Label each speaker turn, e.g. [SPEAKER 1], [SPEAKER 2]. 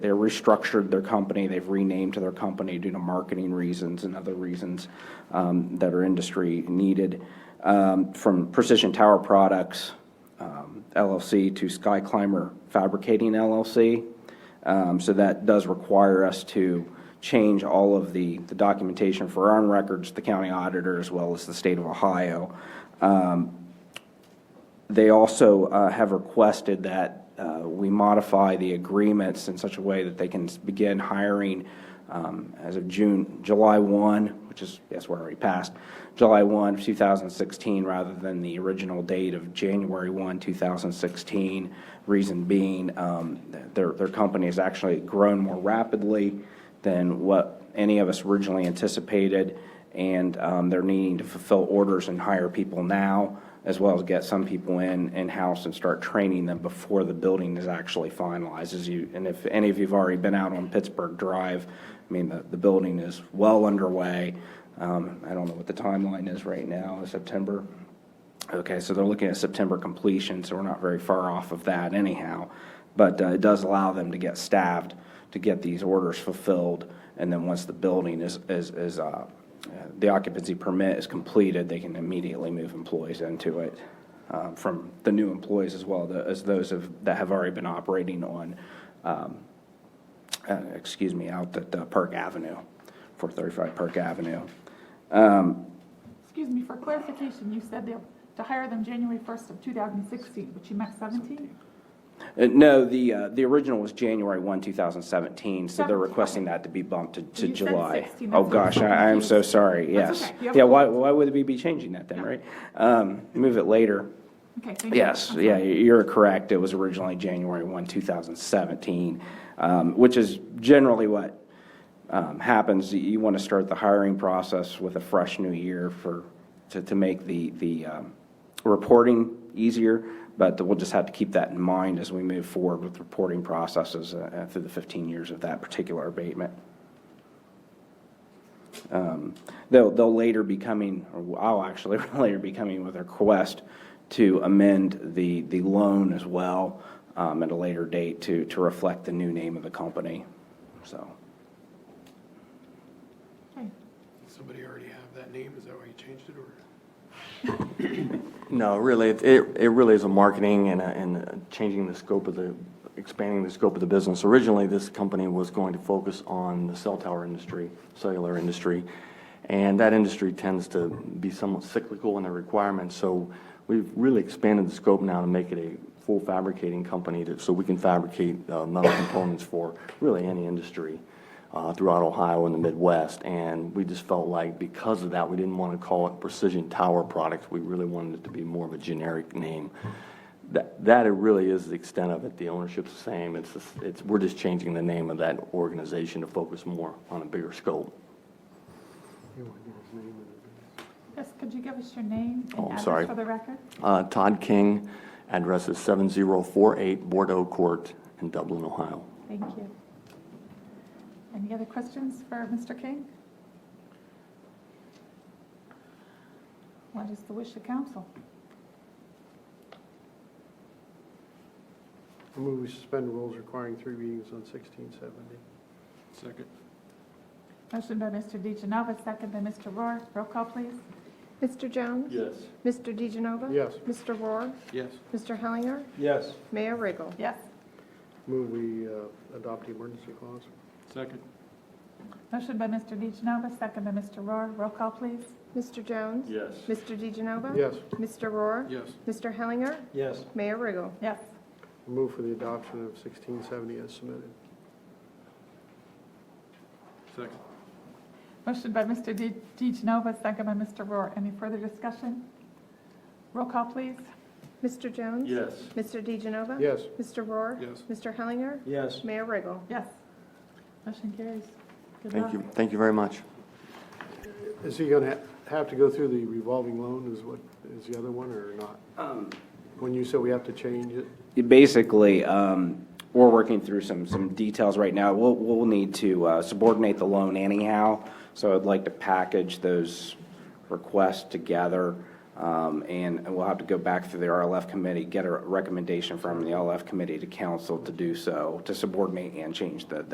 [SPEAKER 1] They restructured their company, they've renamed their company due to marketing reasons and other reasons um, that our industry needed. Um, From Precision Tower Products um, LLC to Sky Climber Fabricating LLC. Um, So that does require us to change all of the the documentation for our own records, the county auditor, as well as the state of Ohio. They also uh, have requested that uh, we modify the agreements in such a way that they can s- begin hiring um, as of June, July 1, which is, yes, we're already past, July 1, 2016, rather than the original date of January 1, 2016. Reason being, um, th- their, their company has actually grown more rapidly than what any of us originally anticipated, and um, they're needing to fulfill orders and hire people now, as well as get some people in, in-house and start training them before the building is actually finalized. As you, and if any of you've already been out on Pittsburgh Drive, I mean, the, the building is well underway. Um, I don't know what the timeline is right now, September? Okay, so they're looking at September completion, so we're not very far off of that anyhow. But uh, it does allow them to get staffed, to get these orders fulfilled, and then once the building is, is, is, uh, uh, the occupancy permit is completed, they can immediately move employees into it, um, from the new employees as well, the- as those of, that have already been operating on, um, uh, excuse me, out at uh, Park Avenue, 435 Park Avenue.
[SPEAKER 2] Excuse me, for clarification, you said they'll, to hire them January 1st of 2016, but you meant 17?
[SPEAKER 1] Uh, No, the, uh, the original was January 1, 2017, so they're requesting that to be bumped to- to
[SPEAKER 2] You said
[SPEAKER 1] July.
[SPEAKER 2] 16,
[SPEAKER 1] Oh,
[SPEAKER 2] that's what
[SPEAKER 1] gosh,
[SPEAKER 2] I'm
[SPEAKER 1] I I am so
[SPEAKER 2] confused.
[SPEAKER 1] sorry,
[SPEAKER 2] That's
[SPEAKER 1] yes.
[SPEAKER 2] okay, you have
[SPEAKER 1] Yeah,
[SPEAKER 2] a
[SPEAKER 1] why, why would we be changing that then, right? Um, Move it later.
[SPEAKER 2] Okay, thank you.
[SPEAKER 1] Yes, yeah, you're correct, it was originally January 1, 2017, um, which is generally what um, happens. You want to start the hiring process with a fresh new year for, to, to make the, the um, reporting easier, but we'll just have to keep that in mind as we move forward with reporting processes uh, through the 15 years of that particular abatement. They'll, they'll later be coming, or I'll actually later be coming with a request to amend the, the loan as well um, at a later date to, to reflect the new name of the company. So,
[SPEAKER 2] Okay.
[SPEAKER 3] Somebody already have that name, is that why you changed it, or?
[SPEAKER 4] No, really, it, it it really is a marketing and, a- and a changing the scope of the, expanding the scope of the business. Originally, this company was going to focus on the cell tower industry, cellular industry, and that industry tends to be somewhat cyclical in their requirements, so we've really expanded the scope now to make it a full fabricating company, that, so we can fabricate uh, metal components for really any industry uh, throughout Ohio and the Midwest, and we just felt like because of that, we didn't want to call it Precision Tower Products. We really wanted it to be more of a generic name. That, that it really is the extent of it. The ownership's the same. It's, just- it's, we're just changing the name of that organization to focus more on a bigger scope.
[SPEAKER 2] Yes, could you give us your name
[SPEAKER 4] Oh, I'm
[SPEAKER 2] and address
[SPEAKER 4] sorry.
[SPEAKER 2] for the record?
[SPEAKER 4] Uh, Todd King, address is 7048 Bordeaux Court in Dublin, Ohio.
[SPEAKER 2] Thank you. Any other questions for Mr. King? What is the wish of council?
[SPEAKER 5] I move we suspend rules requiring three readings on sixteen seventy.
[SPEAKER 3] Second.
[SPEAKER 2] Motion by Mr. DeGenova, second by Mr. Rohr. Roll call, please.
[SPEAKER 6] Mr. Jones?
[SPEAKER 4] Yes.
[SPEAKER 6] Mr. DeGenova?
[SPEAKER 5] Yes.
[SPEAKER 6] Mr. Rohr?
[SPEAKER 3] Yes.
[SPEAKER 6] Mr. Hellinger?
[SPEAKER 5] Yes.
[SPEAKER 6] Mayor Riggle?
[SPEAKER 2] Yes.
[SPEAKER 5] Move we uh, adopt the emergency clause.
[SPEAKER 3] Second.
[SPEAKER 2] Motion by Mr. DeGenova, second by Mr. Rohr. Roll call, please.
[SPEAKER 6] Mr. Jones?
[SPEAKER 4] Yes.
[SPEAKER 6] Mr. DeGenova?
[SPEAKER 5] Yes.
[SPEAKER 6] Mr. Rohr?
[SPEAKER 3] Yes.
[SPEAKER 6] Mr. Hellinger?
[SPEAKER 5] Yes.
[SPEAKER 6] Mayor Riggle?
[SPEAKER 2] Yes.
[SPEAKER 5] Move for the adoption of sixteen seventy as submitted.
[SPEAKER 3] Second.
[SPEAKER 2] Motion by Mr. Di- DeGenova, second by Mr. Rohr. Any further discussion? Roll call, please.
[SPEAKER 6] Mr. Jones?
[SPEAKER 4] Yes.
[SPEAKER 6] Mr. DeGenova?
[SPEAKER 5] Yes.
[SPEAKER 6] Mr. Rohr?
[SPEAKER 3] Yes.
[SPEAKER 6] Mr. Hellinger?
[SPEAKER 5] Yes.
[SPEAKER 6] Mayor Riggle?
[SPEAKER 2] Yes. Motion carries. Good
[SPEAKER 4] Thank
[SPEAKER 2] luck.
[SPEAKER 4] you, thank you very much.
[SPEAKER 5] Is he going to have to go through the revolving loan is what, is the other one or not? When you said we have to change it,
[SPEAKER 1] basically, um, we're working through some, some details right now. We'll, we'll need to uh, subordinate the loan anyhow, so I'd like to package those requests together um, Um, And we'll have to go back through the RLF committee, get a recommendation from the RLF committee to council to do so, to subordinate and change the the